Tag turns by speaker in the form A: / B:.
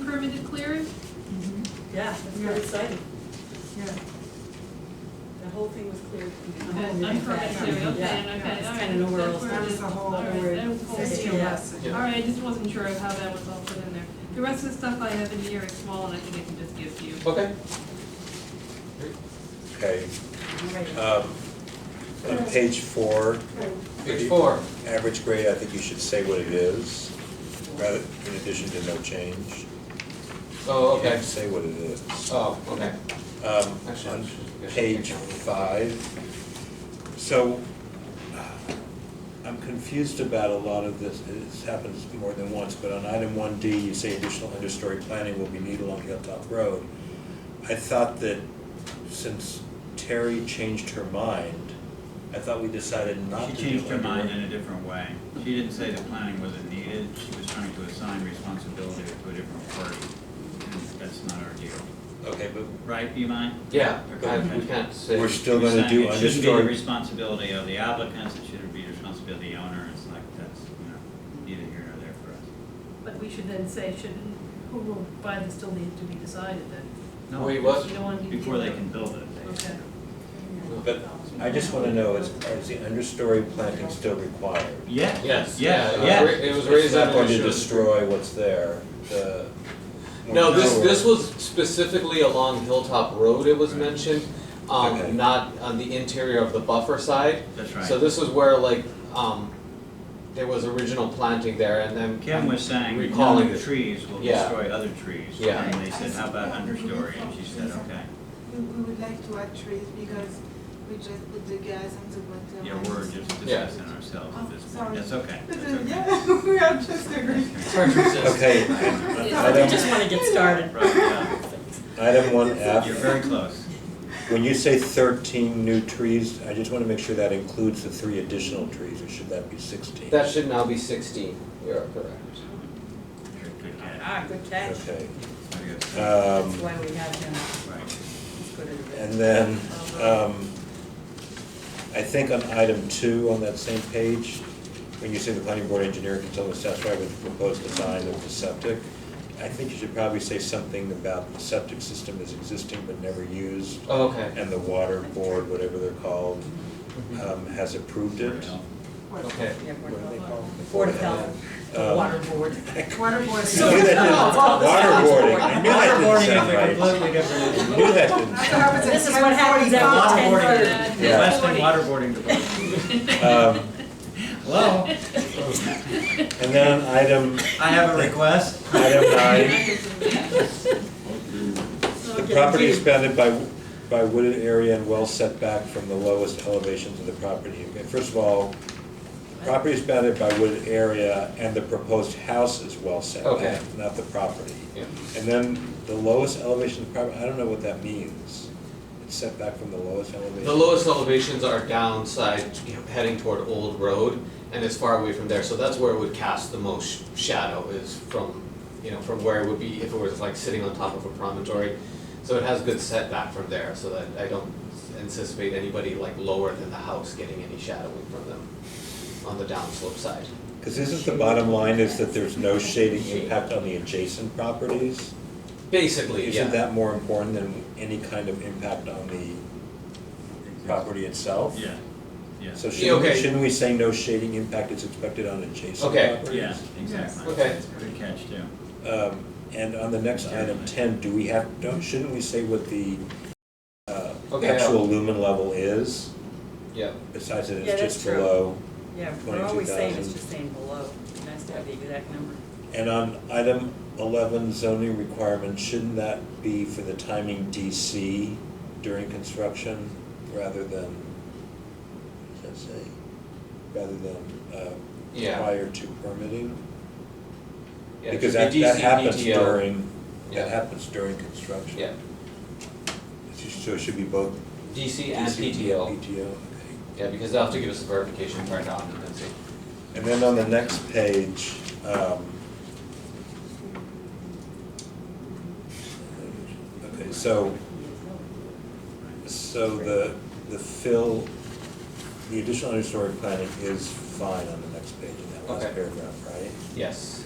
A: permitted clearing?
B: Yeah, that's very exciting.
C: Yeah.
B: The whole thing was cleared.
C: Uh-huh.
A: Okay, Unpermitted clearing, okay,
B: Yeah,
A: and okay,
B: it's
A: all right.
B: kinda nowhere
A: that's
B: else.
A: where
C: That
A: it
C: was
A: is.
C: the whole,
A: All right, that was
C: word,
A: cool.
C: sixteen
B: Yeah.
C: lesson.
A: All right, I just wasn't sure of how that was all put in there. The rest of the stuff I have in here is small, and I think I can just give to you.
D: Okay.
E: Okay,
B: Right.
E: um, on page four,
D: Page four.
E: average grade, I think you should say what it is, rather, in addition to no change.
D: Oh,
E: You have
D: okay.
E: to say what it is.
D: Oh, okay.
E: Um,
D: Actually, I
E: on
D: should- I should
E: page
D: take that
E: five, so uh, I'm confused about a lot of this, this happens more than once, but on item one D, you say additional understory planning will be needed along Hilltop Road. I thought that since Terry changed her mind, I thought we decided not
F: She
E: to do
F: changed her
E: under-
F: mind in a different way. She didn't say that planning wasn't needed, she was trying to assign responsibility to a different party. And That's not our deal,
E: Okay, but
F: right, Imai?
D: Yeah,
F: Okay.
D: I, we can't say.
E: we're still
F: She was
E: gonna do
F: saying It shouldn't be the
E: understory,
F: responsibility of the applicants, it shouldn't be the responsibility of the owner, it's like, that's, you know, neither here nor there for us.
G: But we should then say, should, who will buy this still needs to be decided then?
F: No,
D: Wait, what?
G: You don't want to.
F: Before they can build it. they-
G: Okay.
E: but I just wanna know, is, is the understory planting still required?
F: Yes.
D: Yes, yeah,
F: Yes,
D: it
F: yes.
D: was ra- it was raised up.
E: It's not going
D: under-
E: to destroy what's there, the.
D: No, this, this was specifically along Hilltop Road, it was
F: Right.
D: mentioned,
E: Okay.
D: um, not on the interior of the buffer side.
F: That's
D: So
F: right.
D: this is where like, um, there was original planting there and then.
F: Kim was saying,
D: Recalling
F: none
D: it.
F: of trees will
D: Yeah.
F: destroy other trees.
D: Yeah.
F: And they said, how about understory? And she said, okay.
C: We, we would like to add trees because we just put the gas and the water.
F: Yeah, we're
C: and-
F: just
D: Yeah.
F: discussing ourselves
C: Oh,
F: at this point.
C: sorry.
F: That's okay.
C: But
F: That's
C: then,
F: okay.
C: yeah, we are just agreeing.
E: Okay,
B: I
E: item,
B: just wanna get started.
F: Right, yeah.
E: item one
F: You're
E: F,
F: very close.
E: when you say thirteen new trees, I just wanna make sure that includes the three additional trees, or should that be sixteen?
D: That should now be sixteen, you're correct.
F: You're a good guy.
B: Ah,
E: Um,
B: good catch.
E: Okay,
F: Very good.
B: That's
E: um,
B: why we have him.
F: Right.
B: Let's go to the rest.
E: and then, um, I think on item two on that same page, when you say the planning board engineer consultant satisfied with the proposed design of the septic, I think you should probably say something about the septic system is existing but never used,
D: Okay,
E: and the water board, whatever they're called,
D: Mm-hmm.
E: um, has approved it.
D: okay.
B: Yeah, Board of Health. Board of Health, the
E: Um,
B: Water Board.
C: Water board.
E: I knew that didn't- Waterboarding, I knew that didn't sound right.
D: different.
E: I knew that didn't.
C: That's what happens at
B: This is what happens at
C: 10:45.
B: water board.
A: Yeah.
E: Yeah.
F: Western waterboarding department.
E: Um,
F: Hello,
E: And then on item,
F: I have a request.
E: item nine,
A: So,
E: the
A: okay.
E: property is bounded by, by wooded area and well set back from the lowest elevations of the property. Okay, First of all, property is bounded by wooded area and the proposed house is well set
D: Okay.
E: back, not the property. And then the lowest elevation of the property, I don't know what that means. It's set back from the lowest elevation.
D: The lowest elevations are downside, you know, heading toward Old Road, and it's far away from there, so that's where it would cast the most shadow is from, you know, from where it would be if it was like sitting on top of a promontory. So it has good setback from there, so that I don't anticipate anybody like lower than the house getting any shadowing from them on the downslope side.
E: Because isn't the bottom line is that there's no shading impact on the adjacent properties?
D: Basically,
E: Isn't
D: yeah,
E: that more important than any kind of impact on the property itself?
F: Yeah, yeah,
E: So
D: Yeah,
E: shouldn't,
D: okay.
E: shouldn't we say no shading impact is expected on adjacent
D: Okay.
F: yeah,
E: properties?
F: exactly.
D: Okay.
F: Good catch too.
E: Um, and on the next item
F: Certainly.
E: ten, do we have, don't, shouldn't we say what the, uh,
D: Okay, I'll-
E: actual lumen level is?
D: yeah.
E: Besides that
B: Yeah,
E: it's
B: that's
E: just
B: true.
E: below.
B: Yeah, we're always saying it's
E: 22,000.
B: just saying below. Nice to have the exact number.
E: And on item eleven zoning requirements, shouldn't that be for the timing DC during construction rather than, what does that say? Rather than, uh,
D: Yeah.
E: prior to permitting?
D: Yeah, it
E: Because
D: should
E: that,
D: be
E: that
D: DC,
E: happens
D: DTO.
E: during,
D: Yeah.
E: that happens during construction.
D: E Yeah,
E: It's just- So it should be both.
D: DC and
E: DC
D: PTO,
E: PTO, okay.
D: yeah, because they'll have to give us a verification prior to occupancy.
E: And then on the next page, um. Okay, so, so the, the fill, the additional understory planning is fine on the next page in that last
D: Okay.
E: paragraph, right? Um,
D: Yes.